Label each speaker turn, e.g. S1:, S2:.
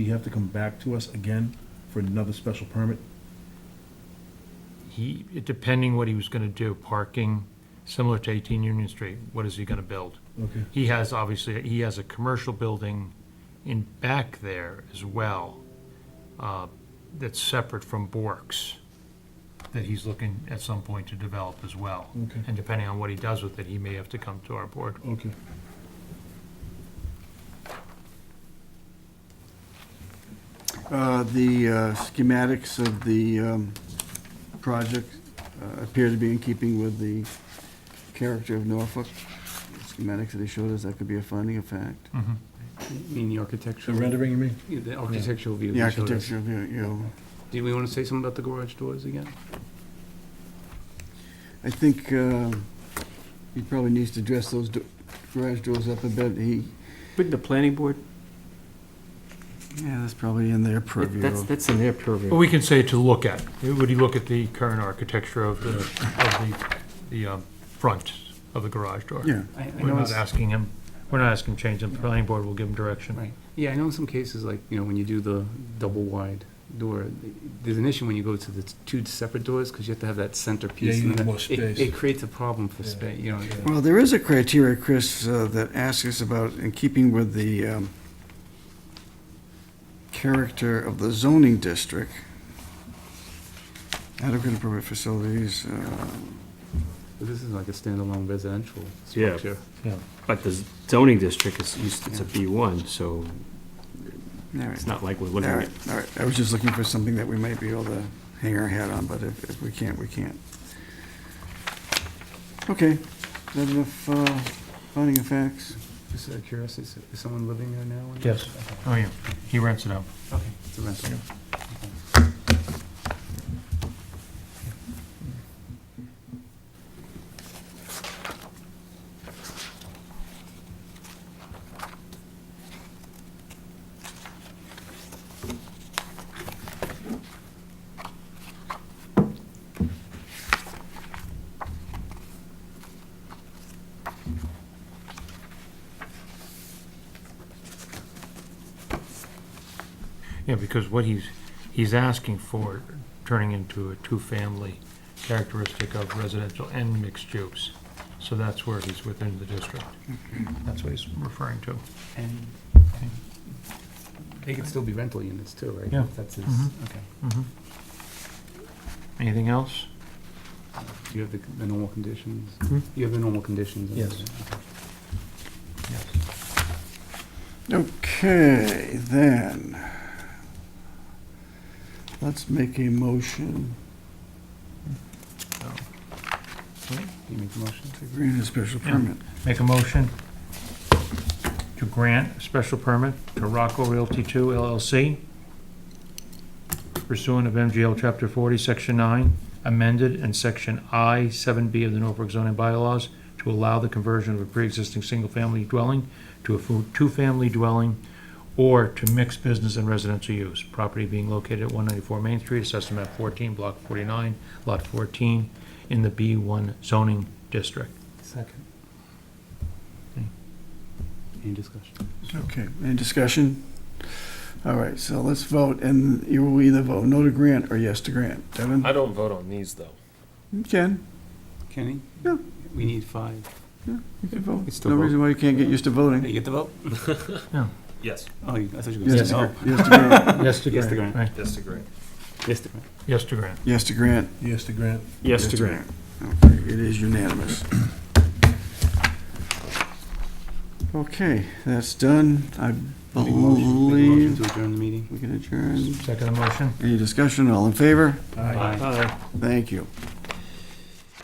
S1: you have to come back to us again for another special permit?
S2: He, depending what he was gonna do, parking, similar to 18 Union Street, what is he gonna build?
S1: Okay.
S2: He has, obviously, he has a commercial building in back there as well, uh, that's separate from Bork's, that he's looking at some point to develop as well.
S1: Okay.
S2: And depending on what he does with it, he may have to come to our board.
S1: Okay.
S3: Uh, The uh, schematics of the um, project uh, appear to be in keeping with the character of Norfolk. Schematics that they showed us, that could be a finding of fact.
S4: You mean the architectural?
S1: The rendering, you mean?
S4: Yeah, The architectural view.
S3: The
S4: they showed us.
S3: architecture of, you- you know,
S4: Do we want to say something about the garage doors again?
S3: I think uh, he probably needs to dress those do- garage doors up a bit. He,
S4: But the planning board,
S3: yeah, that's probably in their
S4: that's,
S3: purview.
S4: that's in their
S2: But
S4: purview.
S2: we can say to look at, would he look at the current architecture of the, of the, the, um, front of the garage door?
S3: Yeah,
S4: I- I
S2: We're
S4: know
S2: not
S4: it's-
S2: asking him, we're not asking him to change, the planning board will give him direction.
S4: Right, yeah, I know in some cases, like, you know, when you do the double wide door, there's an issue when you go to the two separate doors, because you have to have that center piece.
S1: you
S4: and
S1: need
S4: then
S1: more
S4: it-
S1: space.
S4: It creates a problem for
S1: Yeah.
S4: space, you know.
S3: well, there is a criteria, Chris, uh, that asks us about, in keeping with the um, character of the zoning district, adequate appropriate facilities, uh,
S4: But This is like a standalone residential structure.
S5: But the zoning district is, used- it's a B1, so
S3: all right.
S5: it's not like we're
S3: All
S5: looking
S3: right,
S5: at,
S3: all right. I was just looking for something that we might be able to hang our hat on, but if, if we can't, we can't. Okay, is that enough, uh, finding of facts?
S4: Just out of curiosity, is- is someone living there now?
S2: Yes. Oh, yeah, he rents it out.
S4: Okay, it's a rental.
S2: Yeah, because what he's, he's asking for, turning into a two-family characteristic of residential and mixed use. So that's where he's within the district. That's what he's referring to.
S4: And they could still be rental units too, right?
S2: Yeah.
S4: If That's his,
S2: Mhm.
S4: okay.
S2: Mm-hmm. Anything else?
S4: Do you have the- the normal conditions?
S2: Hmm?
S4: You have the normal conditions? and
S2: Yes.
S4: everything, okay.
S2: Yes.
S3: Okay, then. Let's make a motion
S4: Can you make the motion?
S3: to grant a special
S2: Yeah.
S3: permit.
S2: Make a motion to grant a special permit to Rocco Realty Two LLC pursuant of MGL Chapter 40, Section 9, amended in Section I 7B of the Norfolk zoning bylaws to allow the conversion of a pre-existing single-family dwelling to a fu- two-family dwelling or to mixed business and residential use. Property being located at 194 Main Street, Assessment Map 14, Block 49, Lot 14, in the B1 zoning district.
S4: Second.
S2: Okay.
S4: Hmm. Any discussion?
S3: Okay, any discussion? All right, so let's vote, and you will either vote no to grant or yes to grant. Devin?
S6: I don't vote on these, though.
S3: You can,
S4: Kenny?
S3: Yeah.
S4: We need five.
S3: you can
S4: We
S3: vote.
S4: still
S3: No
S4: vote.
S3: reason why you can't get used to
S4: Hey,
S3: voting.
S4: you get the vote?
S6: Yes.
S4: Oh, you- I thought you were going to
S3: Yes
S4: say
S3: to
S4: no.
S3: grant. Yes to grant.
S2: Yes to
S4: Yes to grant.
S2: Right.
S6: Disagree.
S4: Yes, the grant.
S2: Yes to grant.
S3: Yes to grant.
S1: Yes to grant.
S5: yes to grant.
S3: Okay, it is unanimous. Okay, that's done. I
S4: Make a motion- make a motion
S3: believe
S4: to adjourn the meeting.
S3: we can adjourn.
S2: Second motion?
S3: Any discussion? All in favor?
S1: Aye.
S4: Aye.
S5: Aye.
S3: Thank you.